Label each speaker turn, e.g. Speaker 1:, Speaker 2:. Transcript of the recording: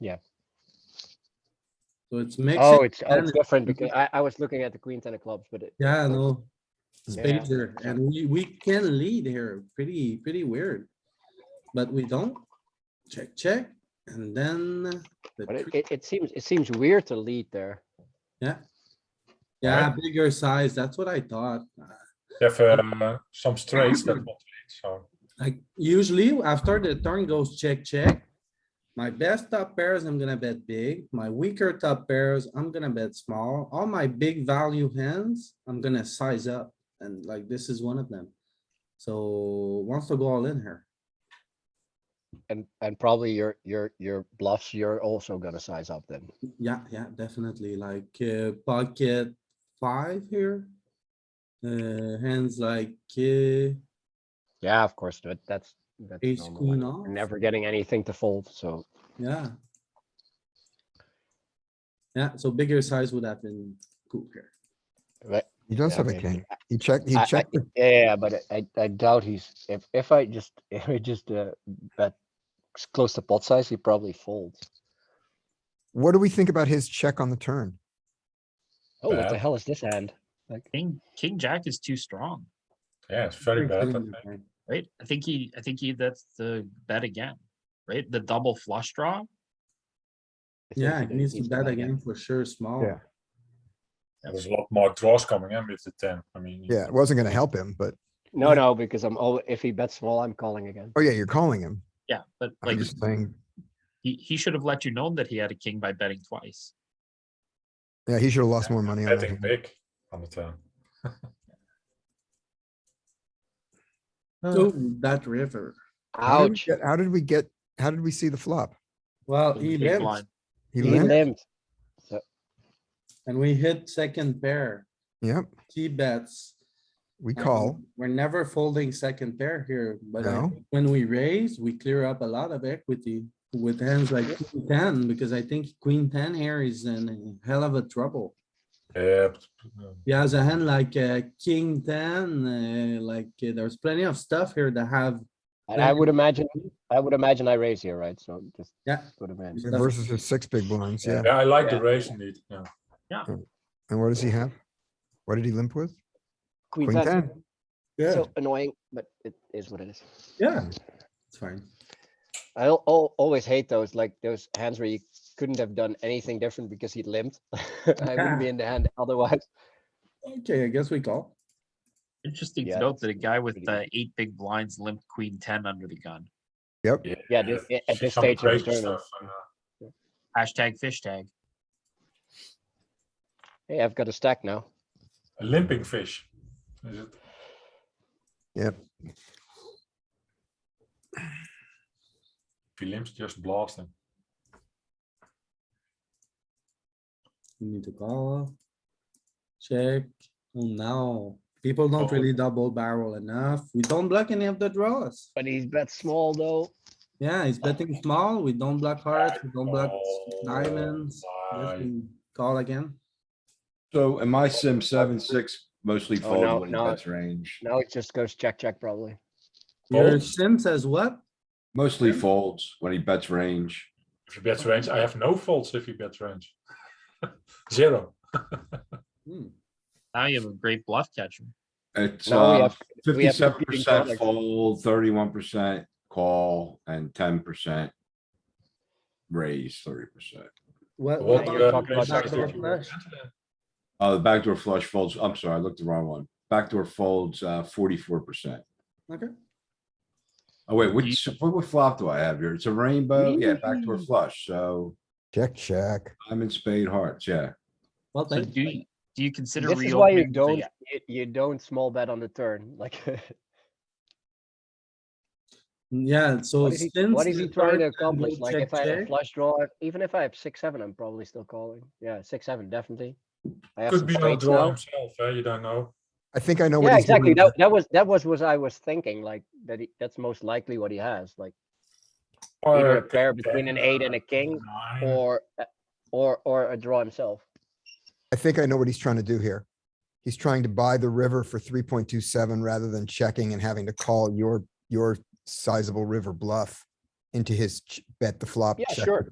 Speaker 1: Yeah.
Speaker 2: So it's mixed.
Speaker 1: Oh, it's, oh, it's
Speaker 2: and-
Speaker 1: different because I, I was looking at the queen ten of clubs, but it,
Speaker 2: Yeah, I know.
Speaker 1: Yeah.
Speaker 2: Spades here, and we, we can lead here, pretty, pretty weird. But we don't. Check, check, and then the,
Speaker 1: but it,
Speaker 2: three-
Speaker 1: it, it seems, it seems weird to lead there.
Speaker 2: yeah, bigger size, that's what I thought.
Speaker 3: You have uh, some straights that want to lead, so
Speaker 2: Like usually after the turn goes check, check. My best top pairs, I'm gonna bet big. My weaker top pairs, I'm gonna bet small. All my big value hands, I'm gonna size up. And like this is one of them. So wants to go all in here.
Speaker 1: And, and probably your, your, your bluffs, you're also gonna size up then.
Speaker 2: Yeah, yeah, definitely. Like uh, pocket five here. Uh, hands like uh,
Speaker 1: Yeah, of course, but that's, that's
Speaker 2: ace
Speaker 1: normal,
Speaker 2: queen
Speaker 1: like,
Speaker 2: off.
Speaker 1: you're never getting anything to fold, so.
Speaker 2: Yeah. Yeah, so bigger size would have been cool here.
Speaker 1: Right,
Speaker 4: He does
Speaker 1: Yeah,
Speaker 4: have a
Speaker 1: maybe.
Speaker 4: king. He checked, he
Speaker 1: I- I-
Speaker 4: checked, the-
Speaker 1: yeah, but I- I, I doubt he's, if, if I just, if I just, uh, bet s- close to pot size, he probably folds.
Speaker 4: what do we think about his check on the turn?
Speaker 1: Oh, what the
Speaker 3: Bad.
Speaker 1: hell is this hand? Like,
Speaker 5: King, king jack is too strong,
Speaker 3: yeah, it's very
Speaker 2: Big
Speaker 3: bad. I
Speaker 2: blind,
Speaker 3: think.
Speaker 2: okay.
Speaker 5: right? I think he, I think he, that's the bet again, right? The double flush
Speaker 1: I
Speaker 5: draw.
Speaker 1: think
Speaker 2: Yeah, it
Speaker 1: does
Speaker 2: needs to bet
Speaker 1: bet
Speaker 2: again for sure, small.
Speaker 4: Yeah.
Speaker 3: Yeah,
Speaker 1: Mhm.
Speaker 3: There's a lot more draws coming in with the ten. I mean,
Speaker 4: Yeah, it wasn't gonna help him, but,
Speaker 1: No, no, because I'm, al- if he bets small, I'm calling again.
Speaker 4: oh yeah, you're calling him.
Speaker 5: Yeah, but
Speaker 4: I'm
Speaker 5: like
Speaker 4: just saying,
Speaker 5: he, he should have let you know that he had a king by betting twice.
Speaker 4: yeah, he should have lost more money on
Speaker 3: betting
Speaker 4: that.
Speaker 3: big on the ten.
Speaker 2: Oh, that river.
Speaker 4: How did we
Speaker 1: Ouch,
Speaker 4: get- How did we get, how did we see the flop?
Speaker 2: Well,
Speaker 5: Big
Speaker 2: he
Speaker 5: blind.
Speaker 2: limped
Speaker 4: He
Speaker 1: he
Speaker 4: limped,
Speaker 1: limped.
Speaker 2: and we hit second pair.
Speaker 4: yep,
Speaker 2: He bets.
Speaker 4: we
Speaker 1: Mm-hmm.
Speaker 2: Um,
Speaker 4: call,
Speaker 2: We're never folding second pair here, but I
Speaker 4: No.
Speaker 2: think when we raise, we clear up a lot of equity with hands like queen ten, because I think queen ten here is in a hell of a trouble.
Speaker 3: Yeah, but, um,
Speaker 2: He has a hand like uh, king ten, uh, like uh, there's plenty of stuff here to have.
Speaker 1: And I would imagine, I would imagine I raise here, right? So just
Speaker 2: Yeah.
Speaker 1: put him in.
Speaker 2: Stuff.
Speaker 4: versus his six big blinds, yeah,
Speaker 3: yeah, I like the
Speaker 1: Yeah.
Speaker 3: raise indeed. Yeah.
Speaker 4: and what does he have? What did he limp with?
Speaker 1: Queen
Speaker 4: Queen
Speaker 1: ten,
Speaker 4: ten.
Speaker 1: so annoying, but it is what it is.
Speaker 2: Yeah, it's fine.
Speaker 1: I al- al- always hate those, like those hands where you couldn't have done anything different because he limped. I wouldn't be in the hand otherwise.
Speaker 2: Okay, I guess we call.
Speaker 5: Interesting
Speaker 1: Yeah,
Speaker 5: to note that a guy with
Speaker 1: pretty
Speaker 5: the eight big blinds limped queen ten under the gun.
Speaker 4: Yep,
Speaker 3: Yeah,
Speaker 1: Yeah, this- yeah, at
Speaker 3: see
Speaker 1: this
Speaker 3: some
Speaker 1: stage of the
Speaker 3: crazy
Speaker 1: tournament.
Speaker 3: stuff, and, uh,
Speaker 5: Hashtag fish tag.
Speaker 1: Hey, I've got a stack now.
Speaker 3: a limping fish. Is it?
Speaker 4: Yep.
Speaker 3: If he limps, just blast him.
Speaker 2: We need to call. Check. Oh, no. People don't
Speaker 3: Oh.
Speaker 2: really double barrel enough. We don't block any of the draws.
Speaker 1: But he's bet small though.
Speaker 2: Yeah, he's betting small. We don't block hearts, we don't block
Speaker 3: Oh,
Speaker 2: diamonds. Guess
Speaker 3: my.
Speaker 2: we Call again.
Speaker 6: So in my sim, seven, six mostly
Speaker 1: Oh, no,
Speaker 6: fold when
Speaker 1: no.
Speaker 6: that's range,
Speaker 1: Now it just goes check, check probably.
Speaker 2: Your
Speaker 3: Folds.
Speaker 2: sim says what?
Speaker 6: mostly folds when he bets range.
Speaker 3: If he bets range, I have no faults if he bets range. Zero.
Speaker 2: Hmm,
Speaker 5: Now you have a great bluff catcher.
Speaker 6: It's
Speaker 1: Now we
Speaker 6: uh
Speaker 1: have- we have
Speaker 6: fifty-seven
Speaker 1: competing
Speaker 6: percent
Speaker 1: products.
Speaker 6: fold, thirty-one percent call, and ten percent raise thirty percent.
Speaker 2: What?
Speaker 1: Well,
Speaker 2: what
Speaker 3: What
Speaker 1: you're
Speaker 3: do
Speaker 2: about
Speaker 3: you
Speaker 1: talking
Speaker 3: have to
Speaker 1: about
Speaker 3: raise
Speaker 1: backdoor
Speaker 3: against
Speaker 2: flush?
Speaker 3: Argentina?
Speaker 6: Oh, the backdoor flush folds, I'm sorry, I looked the wrong one. Backdoor folds uh forty-four percent.
Speaker 2: Okay,
Speaker 6: Oh wait, which, what what flop do I have here? It's a rainbow, yeah, backdoor flush, so
Speaker 4: check, check.
Speaker 6: I'm in spade hearts, yeah.
Speaker 2: well,
Speaker 5: So
Speaker 2: thank
Speaker 5: do you, do you consider?
Speaker 1: This is why you
Speaker 5: reopening the-
Speaker 1: don't, you- you don't small bet on the turn, like.
Speaker 2: Yeah, so
Speaker 1: What is
Speaker 2: since.
Speaker 1: he, what is
Speaker 2: the
Speaker 1: he trying
Speaker 2: turn
Speaker 1: to
Speaker 2: and
Speaker 1: accomplish?
Speaker 2: we
Speaker 1: Like
Speaker 2: check,
Speaker 1: if I have a
Speaker 2: check,
Speaker 1: flush draw, even if I have six, seven, I'm probably still calling. Yeah, six, seven, definitely. I have
Speaker 3: Could
Speaker 1: some
Speaker 3: be a
Speaker 1: straights
Speaker 3: draw
Speaker 1: now.
Speaker 3: himself, eh? you don't know.
Speaker 4: I think I know what
Speaker 1: Yeah,
Speaker 4: he's
Speaker 1: exactly.
Speaker 4: doing.
Speaker 1: That, that was, that was what I was thinking, like, that he, that's most likely what he has, like either a
Speaker 3: Or
Speaker 1: pair
Speaker 3: king
Speaker 1: between an
Speaker 3: ten,
Speaker 1: eight and
Speaker 3: uh,
Speaker 1: a king
Speaker 3: nine.
Speaker 1: or, a- or, or a draw himself.
Speaker 4: I think I know what he's trying to do here. He's trying to buy the river for three point two seven rather than checking and having to call your, your sizable river bluff into his ch- bet the flop.
Speaker 1: Yeah,
Speaker 4: check
Speaker 1: sure.